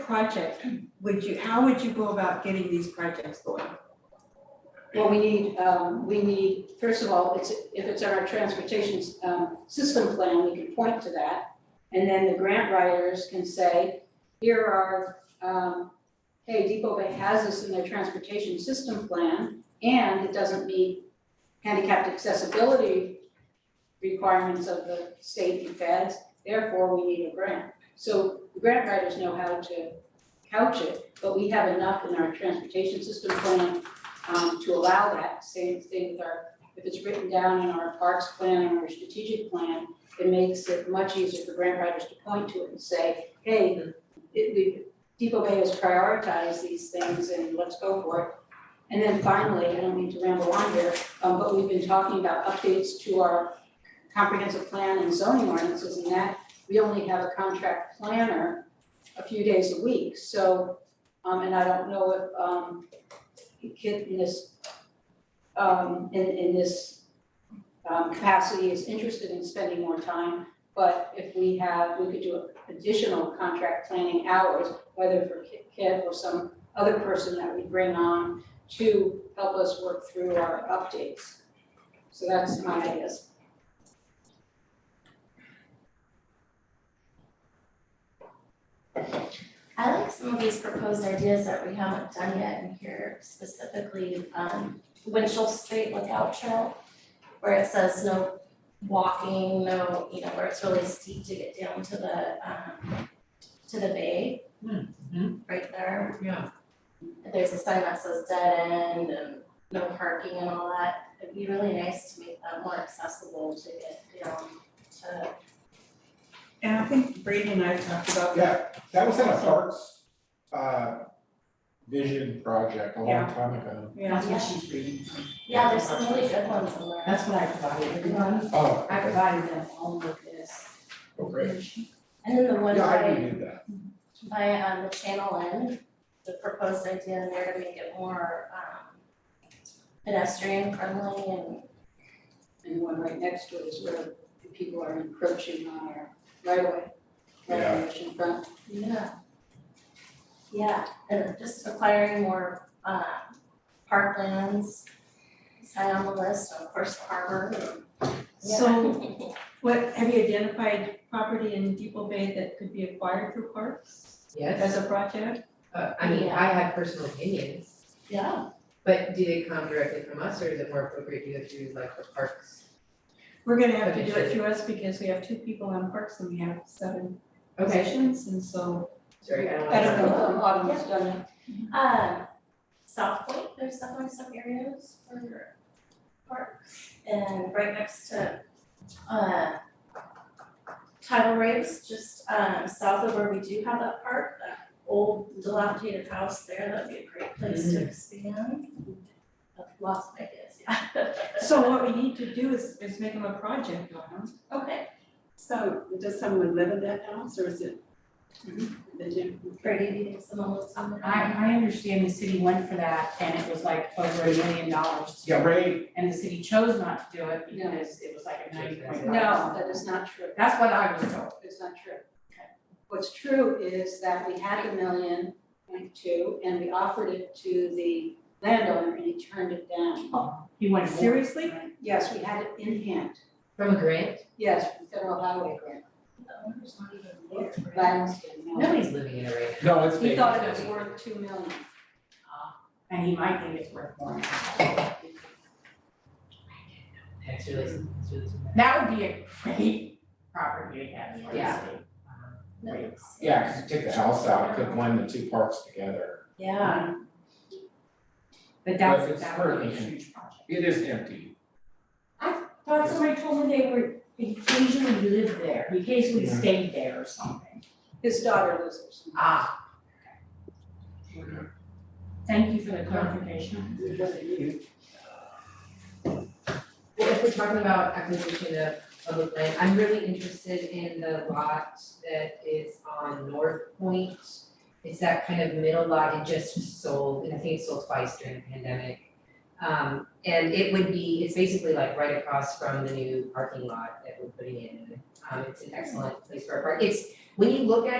project would you, how would you go about getting these projects going? Well, we need, um, we need, first of all, it's, if it's our transportation, um, system plan, we can point to that. And then the grant writers can say, here are, um, hey, Depot Bay has this in their transportation system plan, and it doesn't meet handicapped accessibility requirements of the state and feds, therefore we need a grant. So the grant writers know how to couch it, but we have enough in our transportation system plan um, to allow that, same thing with our, if it's written down in our parks plan and our strategic plan, it makes it much easier for grant writers to point to it and say, hey, it, we, Depot Bay has prioritized these things and let's go for it. And then finally, I don't mean to ramble on here, um, but we've been talking about updates to our comprehensive plan and zoning ordinances and that, we only have a contract planner a few days a week, so, um, and I don't know if, um, kid in this, um, in, in this, um, capacity is interested in spending more time. But if we have, we could do additional contract planning hours, whether for Ki- Kip or some other person that we bring on to help us work through our updates. So that's my ideas. I like some of these proposed ideas that we haven't done yet in here, specifically, um, Winchell Street Lookout Trail, where it says no walking, no, you know, where it's really steep to get down to the, um, to the bay. Right there. Yeah. There's a sign that says dead end and no parking and all that. It'd be really nice to make that more accessible to get down to, And I think Brady and I talked about that. Yeah, that was in a parks, uh, vision project a long time ago. Yeah. That's what she's reading. yeah, there's some really good ones in there. That's what I provided everyone. Oh, I provided them all with this. oh, great. And then the one Yeah, I by, knew that. by um the channel end, the proposed idea in there to make it more um pedestrian friendly and And the one right next to it is where the people are encroaching on our right of way, right of way ocean front. yeah. Yeah, and just acquiring more um parklands, is high on the list, of course, the harbor. Yeah. So what, have you identified property in Depot Bay that could be acquired through parks as Yes, a project? uh, I mean, I have personal opinions, Yeah, but do they come directly from us or is it more appropriate to go through like the parks? We're gonna have to do it through us because we have two people on parks and we have seven Okay, positions and so. sorry, I don't I don't know. know. Autumn has done it. um South Point, there's definitely some areas for parks and right next to uh tidal race, just um south of where we do have that park, that old dilapidated house there, that'd be a great place to expand. Lots of ideas, yeah. So what we need to do is, is make them a project on them. Okay, So does someone live in that house or is it? They do. Brady, do you think someone will come in? I, I understand the city went for that and it was like over a million dollars. Yeah, Ray, And the city chose not to do it No. because it was like a ninety point. No, that is not true. That's what I was told. It's not true. What's true is that we had a million point two and we offered it to the landowner and he turned it down. He went for it. Seriously? Yes, we had it in hand, From a grant, yes, from federal highway grant, The owner's not even there, right? Lionsgate, no. nobody's living in a right now. no, it's He Vegas thought it was County. worth two million. And he might think it's worth more. That's really, that's really. That would be a great property to have for the Yeah. city. No, it's- Yeah, 'cause you take the house out, could blend the two parks together. Yeah. But But that's, it's that would be a hurting. huge project. It is empty. Thought somebody told me they were, they occasionally lived there, they occasionally Yeah. stayed there or something. His daughter lives there somewhere. Ah, Yeah. Thank you for the clarification. Well, if we're talking about acquisition of public land, I'm really interested in the lot that is on North Point. It's that kind of middle lot, it just sold, and I think it sold twice during the pandemic. Um, and it would be, it's basically like right across from the new parking lot that we're putting in. Um, it's an excellent place for a park, it's, when you look at it.